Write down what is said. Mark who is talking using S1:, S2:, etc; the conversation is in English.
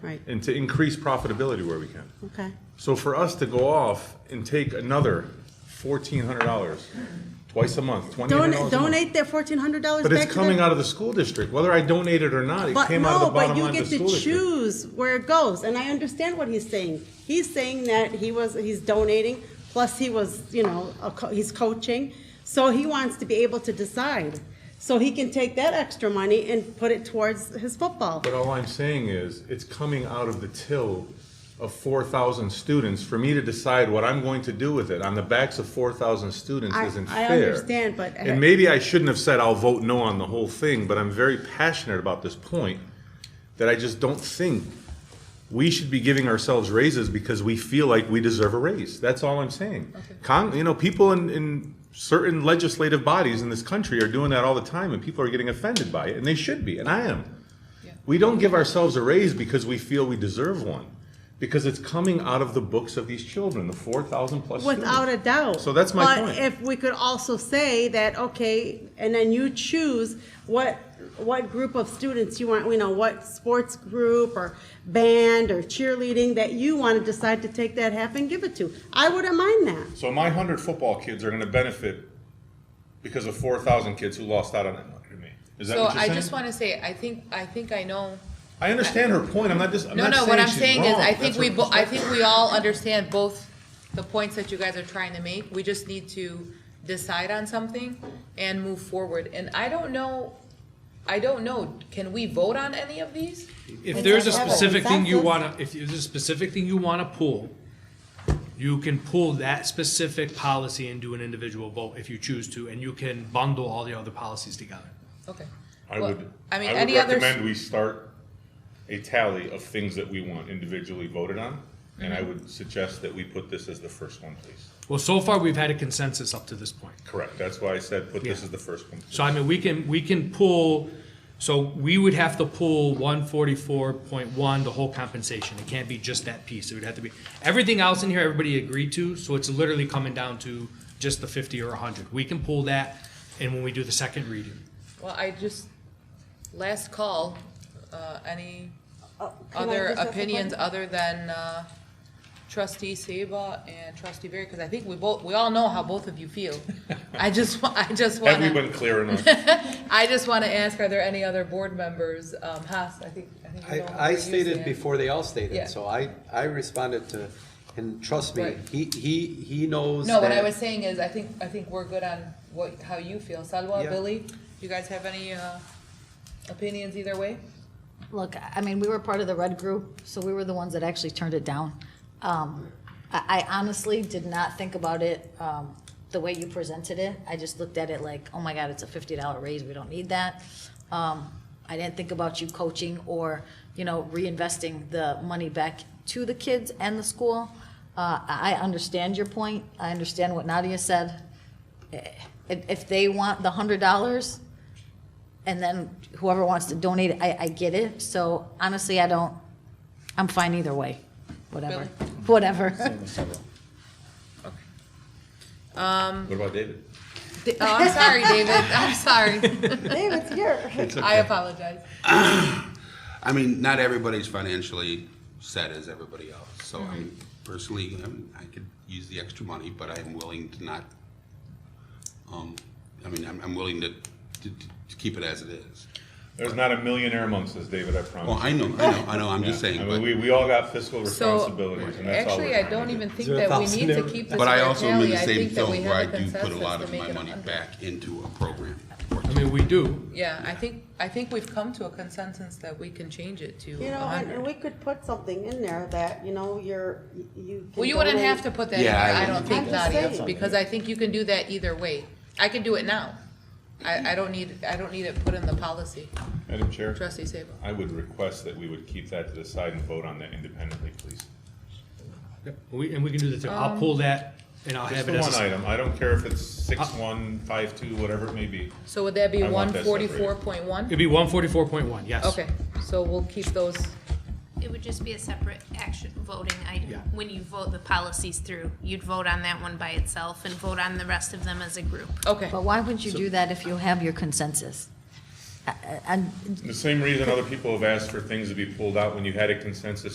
S1: Right.
S2: and to increase profitability where we can.
S1: Okay.
S2: So for us to go off and take another fourteen hundred dollars twice a month, twenty hundred
S1: Donate,
S2: dollars a month.
S1: donate that fourteen hundred dollars
S2: But
S1: back
S2: it's
S1: to them.
S2: coming out of the school district, whether I donate it or not, it
S1: But
S2: came out of the
S1: no, but
S2: bottom
S1: you
S2: line
S1: get
S2: of the
S1: to
S2: school district.
S1: choose where it goes, and I understand what he's saying. He's saying that he was, he's donating, plus he was, you know, a co- he's coaching, so he wants to be able to decide. So he can take that extra money and put it towards his football.
S2: But all I'm saying is, it's coming out of the till of four thousand students for me to decide what I'm going to do with it on the backs of four thousand students
S1: I-
S2: isn't
S1: I
S2: fair.
S1: understand, but-
S2: And maybe I shouldn't have said I'll vote no on the whole thing, but I'm very passionate about this point that I just don't think we should be giving ourselves raises because we feel like we deserve a raise. That's all I'm saying. Con, you know, people in, in certain legislative bodies in this country are doing that all the time and people are getting offended by it and they should be, and I am. We don't give ourselves a raise because we feel we deserve one, because it's coming out of the books of these children, the four thousand plus students.
S1: Without a doubt.
S2: So that's my point.
S1: But if we could also say that, okay, and then you choose what, what group of students you want, you know, what sports group or band or cheerleading that you want to decide to take that half and give it to. I wouldn't mind that.
S2: So my hundred football kids are going to benefit because of four thousand kids who lost out on that money. to me. Is that
S3: So
S2: what you're
S3: I
S2: saying?
S3: just wanna say, I think, I think I know,
S2: I understand her point. I'm not just. I'm
S3: no,
S2: not
S3: no,
S2: saying
S3: what I'm
S2: she's
S3: saying is,
S2: wrong.
S3: I
S2: That's
S3: think
S2: her
S3: we, bo- I
S2: perspective.
S3: think we all understand both the points that you guys are trying to make, we just need to decide on something and move forward, and I don't know, I don't know, can we vote on any of these?
S4: If there's a
S1: It's a-
S4: specific thing you
S1: That's it.
S4: wanna, if there's a specific thing you wanna pull, you can pull that specific policy and do an individual vote if you choose to, and you can bundle all the other policies together.
S3: Okay.
S2: I
S3: Well,
S2: would.
S3: I mean,
S2: would
S3: any others?
S2: recommend we start a tally of things that we want individually voted on, and
S3: Mm-hmm.
S2: I would suggest that we put this as the first one, please.
S4: Well, so far, we've had a consensus up to this point.
S2: Correct. That's why I said put this
S4: Yeah.
S2: as the first one.
S4: So I mean, we can, we can pull, so we would have to pull one forty-four point one, the whole compensation. It can't be just that piece. It would have to be, everything else in here, everybody agreed to, so it's literally coming down to just the fifty or hundred. We can pull that, and when we do the second reading.
S3: Well, I just, last call, uh, any
S1: Oh, Can I
S3: other
S1: just ask a
S3: opinions
S1: question?
S3: other than, uh, trustee Seba and trustee Barry? Cause I think we both, we all know how both of you feel. I just, wa- I just
S2: Have we
S3: wanna,
S2: been clear enough?
S3: I just wanna ask, are there any other board members? Um, Haas, I think, I think you know where
S5: I, I
S3: you
S5: stated
S3: stand.
S5: before they all
S3: Yeah.
S5: stated, so I, I responded to, and trust me,
S3: Right.
S5: he, he, he knows
S3: No, what
S5: that-
S3: I was saying is, I think, I think we're good on what, how you feel. Salwa,
S5: Yeah.
S3: Billy, you guys have any, uh, opinions either way?
S6: Look, I mean, we were part of the red group, so we were the ones that actually turned it down. Um, I, I honestly did not think about it, um, the way you presented it. I just looked at it like, oh my God, it's a fifty dollar raise, we don't need that. Um, I didn't think about you coaching or, you know, reinvesting the money back to the kids and the school. Uh, I, I understand your point. I understand what Nadia said. Eh, If, if they want the hundred dollars, and then whoever wants to donate, I, I get it. So honestly, I don't, I'm fine either way, whatever, whatever.
S2: What about David?
S3: Oh, I'm sorry, David. I'm sorry.
S6: David's here.
S3: I apologize.
S7: I mean, not everybody's financially set as everybody else. So I'm personally, I'm, I could use the extra money, but I am willing to not. Um, I mean, I'm, I'm willing to, to, to keep it as it is.
S2: There's not a millionaire amongst us, David, I promise.
S7: Well, I know, I know, I know. I'm
S2: Yeah.
S7: just saying,
S2: I
S7: but
S2: mean, we, we all got fiscal
S3: So,
S2: responsibilities, and that's all we're
S3: actually, I
S2: trying to
S3: don't
S2: do.
S3: even think
S5: Is there a
S3: that we need to
S5: thousand
S3: keep this.
S7: but I
S3: for a
S7: also am
S3: tally.
S7: in the
S3: I
S7: same
S3: think that
S7: film
S3: we
S7: where I
S3: have a
S7: do put a lot
S3: consensus
S7: of
S3: to
S7: my
S3: make it
S7: money
S3: 100.
S7: back into a program.
S4: I mean, we do.
S3: Yeah, I think, I think we've come to a consensus that we can change it to
S1: You know, and, and we
S3: 100.
S1: could put something in there that, you know, you're, you. can
S3: Well, you wouldn't
S1: donate-
S3: have to put that in there,
S7: Yeah, I
S3: I don't
S7: wouldn't.
S3: think,
S1: I'm just
S3: Nadia,
S1: saying.
S3: because I think you can do that either way. I can do it now. I, I don't need, I don't need it put in the policy.
S2: Madam Chair?
S3: Trustee Sabo.
S2: I would request that we would keep that to the side and vote on that independently, please.
S4: We, and we can do the, two. I'll pull that and I'll
S2: Just
S4: have
S2: the
S4: it
S2: one
S4: as a, Uh,
S2: item, I don't care if it's six, one, five, two, whatever it may be.
S3: So would that be
S2: I want that separated.
S3: 144.1?
S4: it'd be one forty-four point one, yes.
S3: Okay, so we'll keep those,
S8: It would just be a separate action voting
S4: Yeah.
S8: item. When you vote the policies through, you'd vote on that one by itself and vote on the rest of them as a group.
S3: okay.
S6: But why wouldn't you do that if you have your consensus? I- I- I'm
S2: The same reason other people have asked for things to be pulled out when you had a consensus